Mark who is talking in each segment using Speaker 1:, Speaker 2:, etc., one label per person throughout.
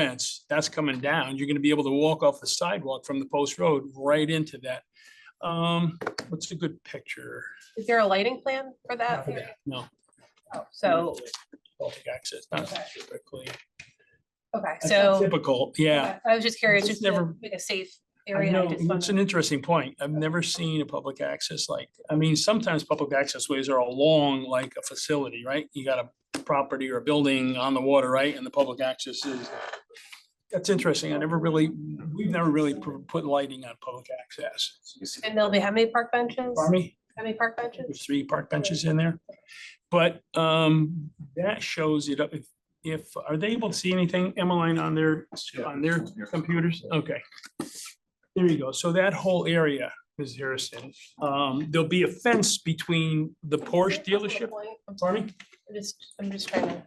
Speaker 1: fence, that's coming down. You're gonna be able to walk off the sidewalk from the post road right into that. Um, what's a good picture?
Speaker 2: Is there a lighting plan for that?
Speaker 1: No.
Speaker 2: Oh, So,
Speaker 1: Baltic access, not typically.
Speaker 2: okay,
Speaker 1: That's not
Speaker 2: so
Speaker 1: Typical, yeah.
Speaker 2: okay, I was just curious,
Speaker 1: Just
Speaker 2: just to
Speaker 1: never-
Speaker 2: make a safe
Speaker 1: I
Speaker 2: area.
Speaker 1: know,
Speaker 2: I just
Speaker 1: It's
Speaker 2: wanted-
Speaker 1: an interesting point. I've never seen a public access like, I mean, sometimes public access ways are along like a facility, right? You got a property or a building on the water, right? And the public access is. That's interesting. I never really, we've never really pr- put lighting on public access.
Speaker 2: And there'll be how many park benches?
Speaker 1: Pardon me?
Speaker 2: How many park benches?
Speaker 1: There's three park benches in there. But um, that shows it up. If- If, are they able to see anything, Emmeline, on their, on their computers? Okay. There you go. So that whole area, Ms. Harrison, um, there'll be a fence between the Porsche dealership.
Speaker 2: I'm
Speaker 1: Pardon me?
Speaker 2: just, I'm just trying to.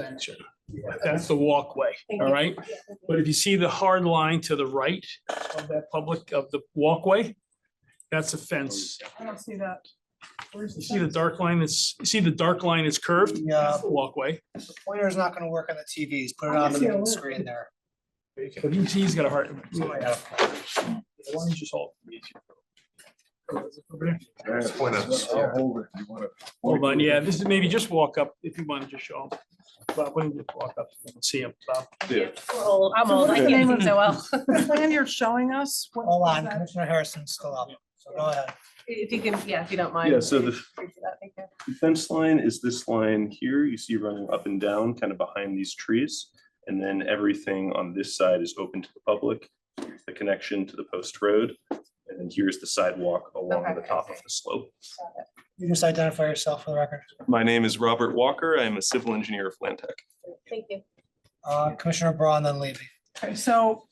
Speaker 1: Thanks, sir. That's the walkway, all right? But if you see the hard line to the right of that public, of the walkway, that's a fence.
Speaker 2: I don't see that.
Speaker 1: You see the dark line that's, you see the dark line is curved?
Speaker 3: Yeah.
Speaker 1: That's the Walkway.
Speaker 3: Pointer's not gonna work on the TVs, put it
Speaker 1: I
Speaker 3: on
Speaker 1: see a
Speaker 3: the
Speaker 1: little
Speaker 3: screen there.
Speaker 1: But he- he's got a heart. Why
Speaker 3: Yeah.
Speaker 1: don't you just hold?
Speaker 3: E
Speaker 1: Over there?
Speaker 4: It's point of-
Speaker 5: I'll hold it if you want to.
Speaker 1: Hold on, yeah, this is maybe just walk up if you want to just show him. Bob, why don't you just walk up and see him? Bob?
Speaker 5: Yeah.
Speaker 2: old. I'm
Speaker 6: So
Speaker 2: old, I
Speaker 6: what's the
Speaker 2: can't
Speaker 6: name
Speaker 2: see
Speaker 6: of-
Speaker 2: so well.
Speaker 6: The plan you're showing us? what
Speaker 3: Hold
Speaker 6: is
Speaker 3: on,
Speaker 6: that?
Speaker 3: Commissioner Harrison's still up, so go ahead.
Speaker 2: If you can, yeah, if you don't mind.
Speaker 5: Yeah, so the-
Speaker 2: Thank you.
Speaker 5: The Fence line is this line here, you see running up and down, kind of behind these trees. And then everything on this side is open to the public, Here's the connection to the post road. And then here's the sidewalk along the
Speaker 2: Okay, I
Speaker 5: top of
Speaker 2: see.
Speaker 5: the slope.
Speaker 3: You just identify yourself for the record.
Speaker 5: My name is Robert Walker, I am a civil engineer of Land Tech.
Speaker 2: Thank you.
Speaker 3: Uh, Commissioner Braun, then Levy.
Speaker 6: Okay, So.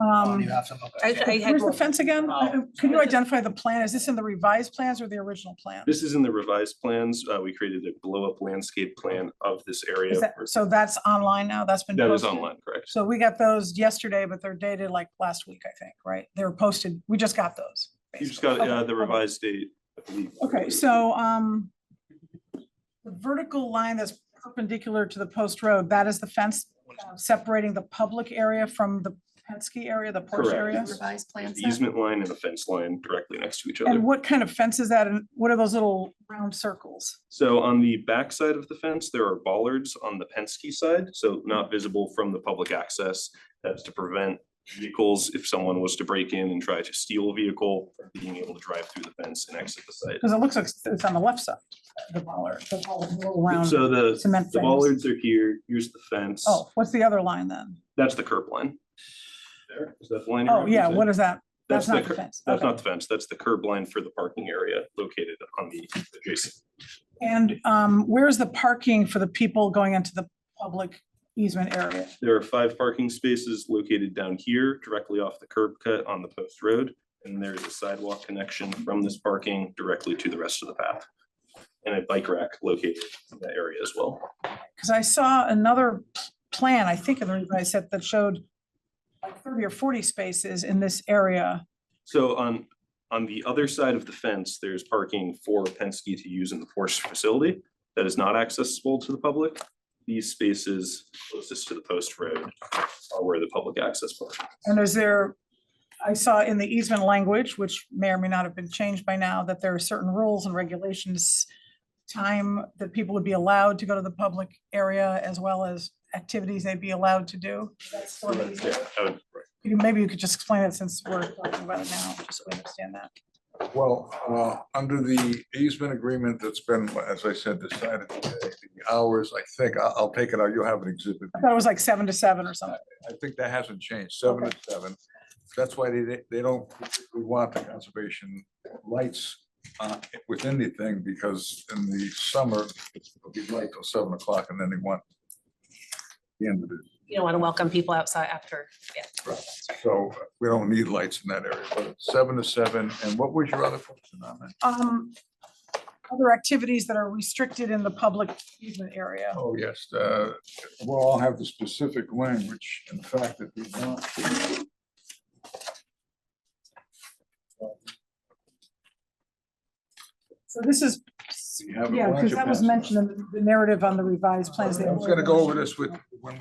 Speaker 3: Oh,
Speaker 6: Um,
Speaker 3: You have to look.
Speaker 2: I, I had
Speaker 6: where's the
Speaker 2: more.
Speaker 6: fence again?
Speaker 3: Oh.
Speaker 6: Uh, Can you identify the plan? Is this in the revised plans or the original plan?
Speaker 5: This is in the revised plans, uh, we created a blow up landscape plan of this area.
Speaker 6: Is that,
Speaker 5: for-
Speaker 6: so that's online now? That's been.
Speaker 5: That is
Speaker 6: posted?
Speaker 5: online, correct?
Speaker 6: So we got those yesterday, but they're dated like last week, I think, right? They were posted. We just got those.
Speaker 5: You just got,
Speaker 6: basically.
Speaker 5: uh, the
Speaker 6: Okay, okay.
Speaker 5: revised date, I believe.
Speaker 6: Okay, so, um, the vertical line that's perpendicular to the post road, that is the fence uh, separating the public area from the Penske area, the Porsche
Speaker 5: Correct.
Speaker 6: area?
Speaker 7: revised plan
Speaker 5: The
Speaker 7: set.
Speaker 5: Easement line and a fence line directly next to each other.
Speaker 6: And what kind of fence is that? And what are those little round circles?
Speaker 5: So on the backside of the fence, there are bollards on the Penske side, so not visible from the public access. That's to prevent vehicles, if someone was to break in and try to steal a vehicle, from being able to drive through the fence and exit the site.
Speaker 6: Because it looks like it's on the left side, the bollard, the bollard, the little round.
Speaker 5: So the,
Speaker 6: cement
Speaker 5: the
Speaker 6: frames.
Speaker 5: bollards are here, here's the fence,
Speaker 6: Oh, what's the other line then?
Speaker 5: that's the curb line. There, is that the line? you're
Speaker 6: Oh, yeah,
Speaker 5: referencing?
Speaker 6: what is that? That's
Speaker 5: the
Speaker 6: not the
Speaker 5: cur-
Speaker 6: fence.
Speaker 5: That's
Speaker 6: Okay.
Speaker 5: not the fence, that's the curb line for the parking area located on the adjacent.
Speaker 6: And, um, where's the parking for the people going into the public easement area?
Speaker 5: There are five parking spaces located down here, directly off the curb cut on the post road. And there is a sidewalk connection from this parking directly to the rest of the path. And a bike rack located in that area as well.
Speaker 6: Because I saw another p- plan, I think, in the revised set that showed like thirty or forty spaces in this area.
Speaker 5: So on, on the other side of the fence, there's parking for Penske to use in the Porsche facility that is not accessible to the public. These spaces closest to the post road are where the public access park.
Speaker 6: And is there, I saw in the easement language, which may or may not have been changed by now, that there are certain rules and regulations, time that people would be allowed to go to the public area as well as activities they'd be allowed to do.
Speaker 5: Yeah, I would-
Speaker 6: You- Maybe you could just explain it since we're talking about it now, just so we understand that.
Speaker 4: Well, uh, under the easement agreement that's been, as I said, decided today, the hours, I think, I'll, I'll take it out, you'll have an exhibit.
Speaker 6: I thought it was like seven to seven or something.
Speaker 4: I think that hasn't changed, seven to seven. That's why they, they don't, we want the conservation lights uh, within the thing, because in the summer, it'll be light till seven o'clock, and then they want the end of it.
Speaker 2: You don't want to welcome people outside after.
Speaker 4: So we don't need lights in that area, but it's seven to seven, and what was your other question on that?
Speaker 6: um, other activities that are restricted in the public easement area.
Speaker 4: Oh, yes, uh, we'll all have the specific language, in fact, that we want.
Speaker 6: So this is
Speaker 4: You have a
Speaker 6: Yeah,
Speaker 4: bunch
Speaker 6: because
Speaker 4: of
Speaker 6: that was
Speaker 4: pencils.
Speaker 6: mentioned in the narrative on the revised plans.
Speaker 4: I was gonna go over this with, when